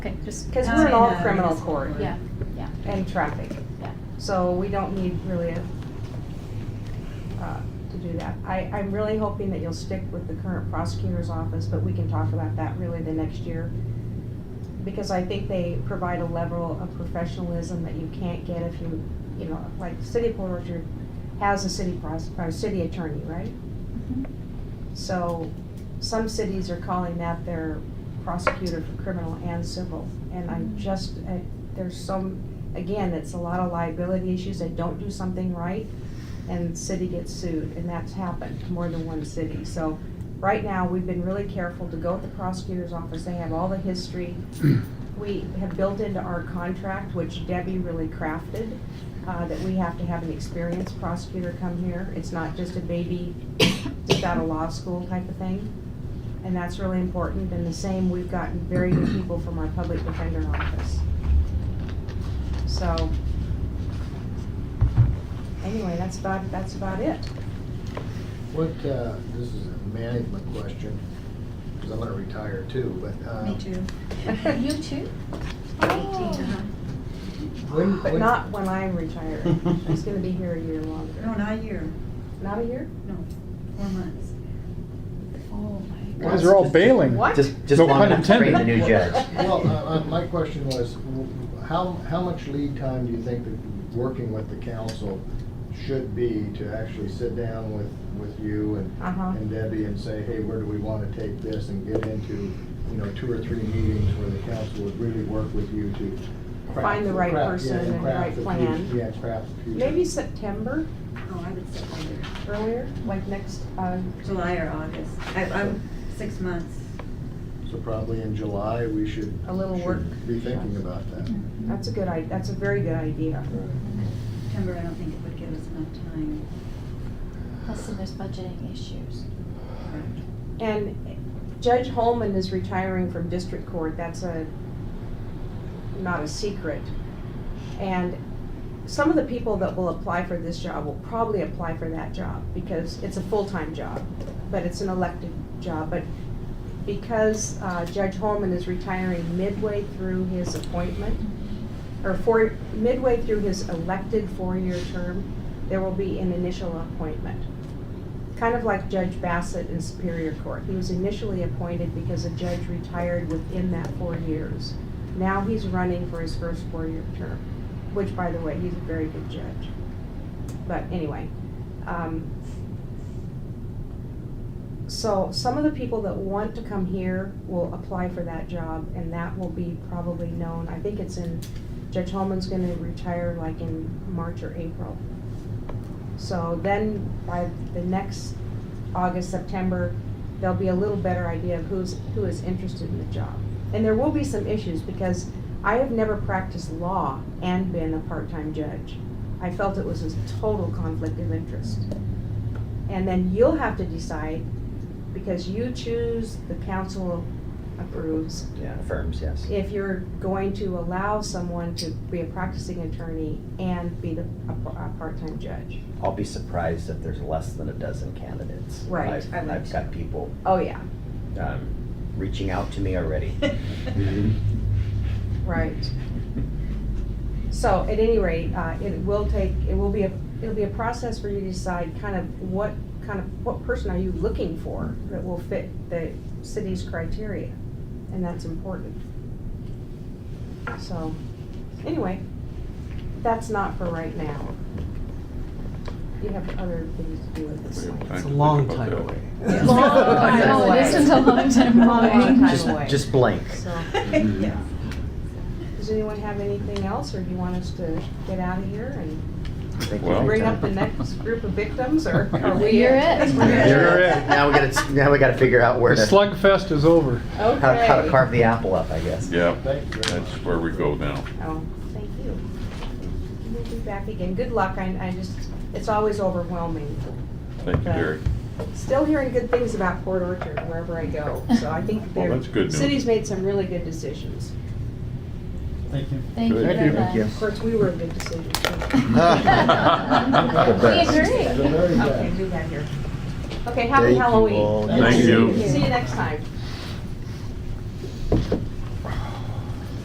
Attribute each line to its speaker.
Speaker 1: Just
Speaker 2: Because we're in all
Speaker 1: comment on-
Speaker 2: criminal court
Speaker 1: Yeah, yeah,
Speaker 2: and traffic,
Speaker 1: yeah.
Speaker 2: so we don't need really a, uh, to do that. I, I'm really hoping that you'll stick with the current prosecutor's office, but we can talk about that really the next year. Because I think they provide a level of professionalism that you can't get if you, you know, like the City of Port Orchard has a city pros, or city attorney, right?
Speaker 1: Mhm.
Speaker 2: So some cities are calling that their prosecutor for criminal and civil. And I'm just, uh, there's some, again, it's a lot of liability issues. They don't do something right and the city gets sued. And that's happened to more than one city. So right now, we've been really careful to go with the prosecutor's office. They have all the history. We have built into our contract, which Debbie really crafted, uh, that we have to have an experienced prosecutor come here. It's not just a baby just out of law school type of thing. And that's really important, and the same, we've gotten very good people from our public defender office. So, anyway, that's about, that's about it.
Speaker 3: What, uh, this is a management question, because I'm gonna retire too, but, uh.
Speaker 4: Me too.
Speaker 1: You too?
Speaker 4: Uh-huh.
Speaker 3: When,
Speaker 2: But
Speaker 3: when-
Speaker 2: not when I'm retired, I'm just gonna be here a year longer.
Speaker 4: No, not a year,
Speaker 2: Not a year?
Speaker 4: no, four months.
Speaker 1: Oh my.
Speaker 5: Guys are all bailing.
Speaker 2: What?
Speaker 6: Just, just
Speaker 5: No
Speaker 6: long
Speaker 5: pun
Speaker 6: enough to bring the
Speaker 5: intended.
Speaker 6: new judge.
Speaker 3: Well, uh, uh, my question was, w- how, how much lead time do you think that working with the council should be to actually sit down with, with you and,
Speaker 2: Uh-huh.
Speaker 3: and Debbie and say, hey, where do we wanna take this and get into, you know, two or three meetings where the council would really work with you to. craft-
Speaker 2: Find the right
Speaker 3: craft- yeah,
Speaker 2: person and the
Speaker 3: craft
Speaker 2: right
Speaker 3: fut-
Speaker 2: plan.
Speaker 3: Yeah, craft the future.
Speaker 2: Maybe September,
Speaker 4: Oh, I would say later,
Speaker 2: earlier, like next, uh,
Speaker 4: July or August. I, I'm six months.
Speaker 3: So probably in July, we should.
Speaker 2: A little
Speaker 3: should
Speaker 2: work.
Speaker 3: Be thinking about that.
Speaker 2: that's a good i, that's a very good idea.
Speaker 4: September, I don't think it would give us enough time.
Speaker 1: Plus, then there's budgeting issues.
Speaker 2: And Judge Holman is retiring from district court, that's a, not a secret. And some of the people that will apply for this job will probably apply for that job, because it's a full-time job, but it's an elected job, but because uh, Judge Holman is retiring midway through his appointment, or for, midway through his elected four-year term, there will be an initial appointment kind of like Judge Bassett in Superior Court. He was initially appointed because a judge retired within that four years. Now he's running for his first four-year term, which, by the way, he's a very good judge. But anyway, um, so some of the people that want to come here will apply for that job, and that will be probably known. I think it's in, Judge Holman's gonna retire like in March or April. So then by the next August, September, there'll be a little better idea of who's, who is interested in the job. And there will be some issues because I have never practiced law and been a part-time judge. I felt it was a total conflict of interest. And then you'll have to decide because you choose, the council approves,
Speaker 6: Yeah, firms, yes.
Speaker 2: if you're going to allow someone to be a practicing attorney and be the, a, a part-time judge.
Speaker 6: I'll be surprised if there's less than a dozen candidates.
Speaker 2: Right,
Speaker 6: I've,
Speaker 4: I would
Speaker 6: I've got people,
Speaker 2: Oh, yeah.
Speaker 6: um, reaching out to me already. Mm-hmm.
Speaker 2: Right. So at any rate, uh, it will take, it will be a, it'll be a process for you to decide kind of what, kind of, what person are you looking for that will fit the city's criteria, and that's important. So, anyway, that's not for right now. You have other things to do with this.
Speaker 7: It's a long time away.
Speaker 2: Yes.
Speaker 1: Long time
Speaker 2: Long
Speaker 1: away. This is a long time
Speaker 2: Long, long
Speaker 1: away.
Speaker 2: time
Speaker 6: Just,
Speaker 2: away.
Speaker 6: just blank.
Speaker 2: So,
Speaker 4: Yeah.
Speaker 2: does anyone have anything else, or do you want us to get out of here and?
Speaker 6: Thank you.
Speaker 7: Well-
Speaker 2: bring up the next group of victims, or are we?
Speaker 1: You're it.
Speaker 2: We're
Speaker 7: You're
Speaker 2: it.
Speaker 7: it.
Speaker 6: Now we gotta, now we gotta figure out where
Speaker 5: The
Speaker 6: to,
Speaker 5: slugfest is over.
Speaker 6: how to how to
Speaker 2: Okay.
Speaker 6: carve the apple up, I guess.
Speaker 7: Yeah,
Speaker 3: Thank you very
Speaker 7: that's
Speaker 3: much.
Speaker 7: where we go now.
Speaker 2: Oh, thank you. We'll be back again. Good luck. I, I just, it's always overwhelming.
Speaker 7: Thank you,
Speaker 2: Okay.
Speaker 7: Derek.
Speaker 2: Still hearing good things about Port Orchard wherever I go, so I think
Speaker 7: Well,
Speaker 2: the
Speaker 7: that's good news.
Speaker 2: City's made some really good decisions.
Speaker 5: Thank you.
Speaker 1: Thank you
Speaker 7: Thank
Speaker 1: very
Speaker 7: you.
Speaker 1: much.
Speaker 6: Thank you.
Speaker 2: Of course, we were a good decision. too.
Speaker 1: We agree.
Speaker 3: The very best.
Speaker 2: Okay, do that here. Okay,
Speaker 6: Thank
Speaker 2: happy
Speaker 6: you
Speaker 2: Halloween.
Speaker 6: all.
Speaker 7: Thank you.
Speaker 2: See you next time.